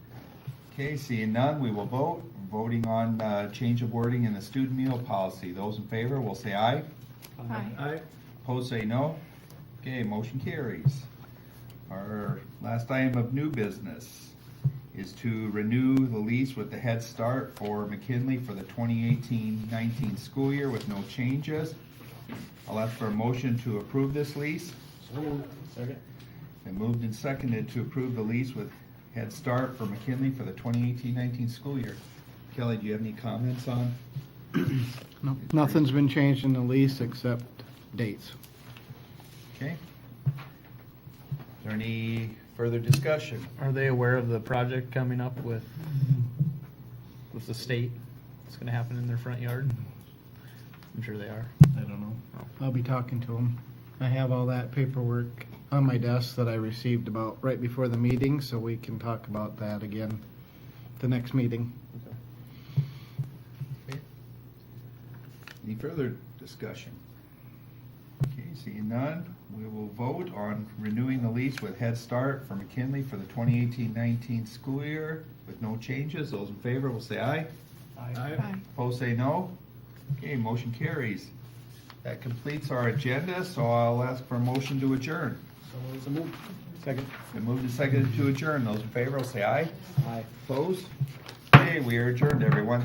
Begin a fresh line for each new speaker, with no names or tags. Okay, seeing none, we will vote. Voting on uh, change of wording in the student meal policy. Those in favor will say aye.
Aye.
Opposed, say no. Okay, motion carries. Our last item of new business is to renew the lease with the Head Start for McKinley for the 2018-19 school year with no changes. I'll ask for a motion to approve this lease.
Second?
Been moved and seconded to approve the lease with Head Start for McKinley for the 2018-19 school year. Kelly, do you have any comments on?
No, Nothing's been changed in the lease except dates.
Okay. Is there any further discussion?
Are they aware of the project coming up with, with the state? It's gonna happen in their front yard? I'm sure they are.
I don't know.
I'll be talking to him. I have all that paperwork on my desk that I received about right before the meeting, so we can talk about that again the next meeting.
Any further discussion? Okay, seeing none, we will vote on renewing the lease with Head Start for McKinley for the 2018-19 school year with no changes. Those in favor will say aye.
Aye.
Opposed, say no. Okay, motion carries. That completes our agenda, so I'll ask for a motion to adjourn.
Second?
Been moved and seconded to adjourn. Those in favor will say aye.
Aye.
Opposed? Okay, we are adjourned, everyone.